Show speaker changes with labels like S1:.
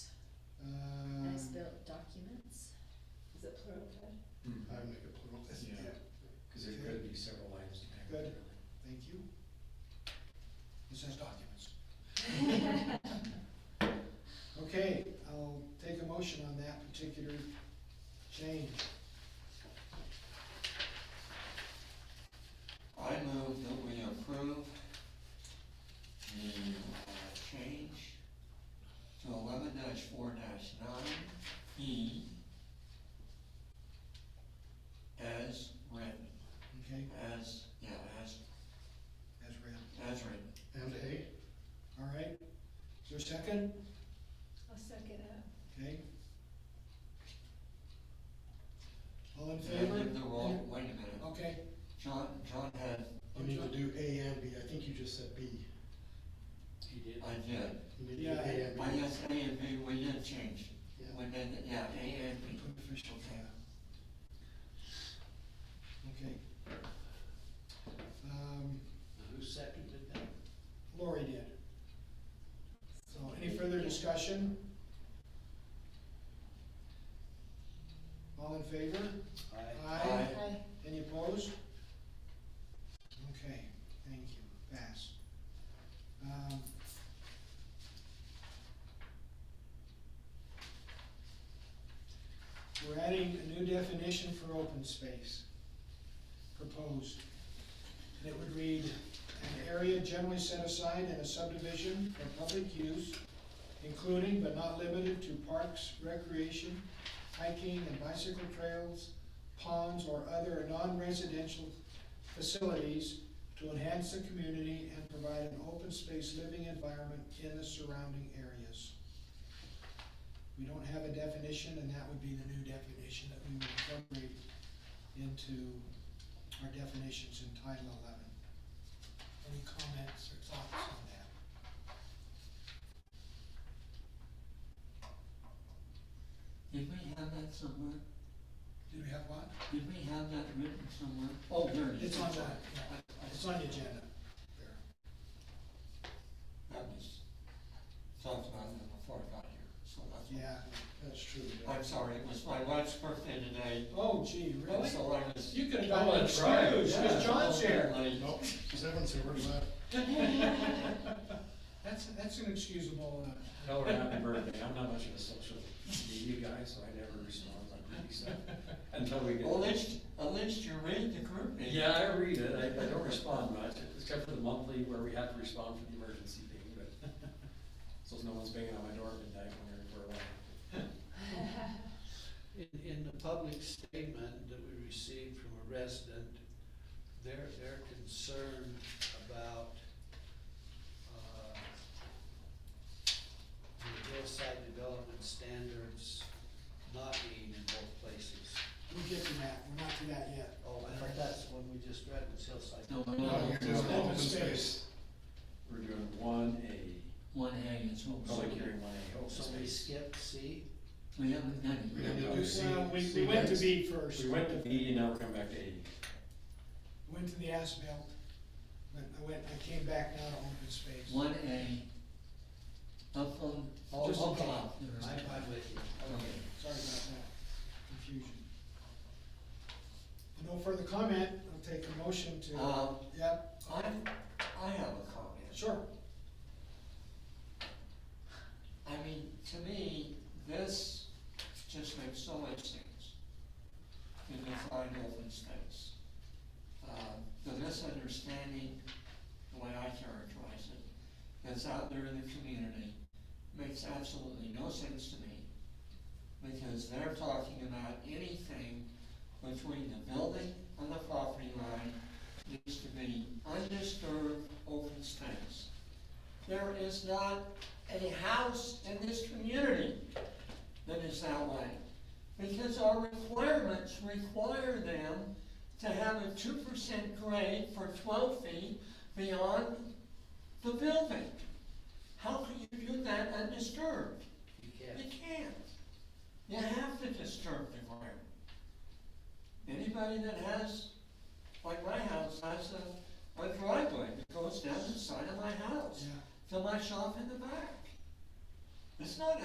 S1: Um,
S2: motion on that particular change.
S3: I move that we approve the uh, change to eleven four nine E as written,
S2: Okay,
S3: as, yeah, as,
S2: as read.
S3: as written.
S2: Okay, all right. Is there a second?
S4: I'll second that.
S2: Okay. All in
S3: Did I
S2: favor?
S3: give the wrong, wait a minute,
S2: Okay.
S3: John, John had,
S1: You need to do A and B, I think you just said B.
S5: He did.
S3: I did,
S1: You need to do
S2: Yeah.
S1: A
S3: I
S1: and B.
S3: guess A and B, we did change, we
S1: Yeah.
S3: did, yeah, A and B.
S2: Put official tab. Okay. Um,
S5: Who seconded that?
S2: Lori did. So any further discussion? All in favor? Aye.
S4: Aye.
S2: Any opposed? Okay, thank you, pass. Um, We're adding a new definition for open space, proposed. And it would read, "An area generally set aside in a subdivision for public use, including but not limited to parks, recreation, hiking and bicycle trails, ponds, or other non-residential facilities to enhance the community and provide an open space living environment in the surrounding areas. We don't have a definition, and that would be the new definition that we would incorporate into our definitions in Title 11. Any comments or thoughts on that?
S3: Did we have that somewhere?
S2: Do we have one?
S3: Did we have that written somewhere? Oh, there it is.
S2: It's on the, yeah, it's on the agenda. There.
S3: That was talked about it before I got here, so that's.
S2: Yeah.
S1: That's true.
S3: I'm sorry, it was my wife's birthday today,
S2: Oh gee,
S3: and
S2: really?
S3: so I was.
S2: You could have
S5: Oh,
S2: gotten
S5: that's right,
S2: excused, because
S3: Yeah,
S2: John's here.
S3: I-
S1: Nope, Seven's here, where's that?
S2: That's, that's inexcusable. uh,
S5: Tell her happy birthday. I'm not much of a social media guy, so I never respond like pretty stuff until we get.
S3: At least, at least you read the group. meeting.
S5: Yeah, I read it. I, I don't respond much, except for the monthly where we have to respond for the emergency thing, but. So no one's banging on my door at midnight when we're, we're away.
S6: In, in the public statement that we received from a resident, they're, they're concerned about, uh, the hillside development standards not being in both places.
S2: We'll get to that, we're not to that yet.
S6: Oh, I thought that's the one we just read, was hillside.
S3: No,
S2: Oh,
S1: No, you're doing
S3: no,
S1: open space.
S5: We're doing one A,
S3: one A, it's open.
S5: public hearing one A, open
S6: So we
S5: space.
S6: Oh, skipped C?
S3: We haven't done it.
S1: We didn't do C.
S2: Well, we, we
S1: C
S2: went to
S1: next.
S2: B first.
S5: We went to B and now we're coming back to A.
S2: Went to the asphalt, but I went, I came back now to open space.
S3: One A, up on,
S6: Oh,
S3: just
S6: okay.
S3: above.
S6: I'm, I'm with you.
S3: Okay.
S2: Sorry about that, confusion. No further comment, I'll take a motion to,
S3: Um,
S2: yep,
S3: I, I have a comment.
S2: sure.
S3: I mean, to me, this just makes so much sense to define open space. Uh, The misunderstanding, the way I characterize it, that's out there in the community makes absolutely no sense to me because they're talking about anything between the building and the property line needs to be undisturbed open space. There is not a house in this community that is that way. Because our requirements require them to have a two percent grade for twelve feet beyond the building. How can you do that undisturbed?
S6: You
S3: You
S6: can't.
S3: can't. You have to disturb the environment. Anybody that has, like my house, has a, a driveway that goes down the side of my house
S2: Yeah.
S3: to my shop in the back. It's not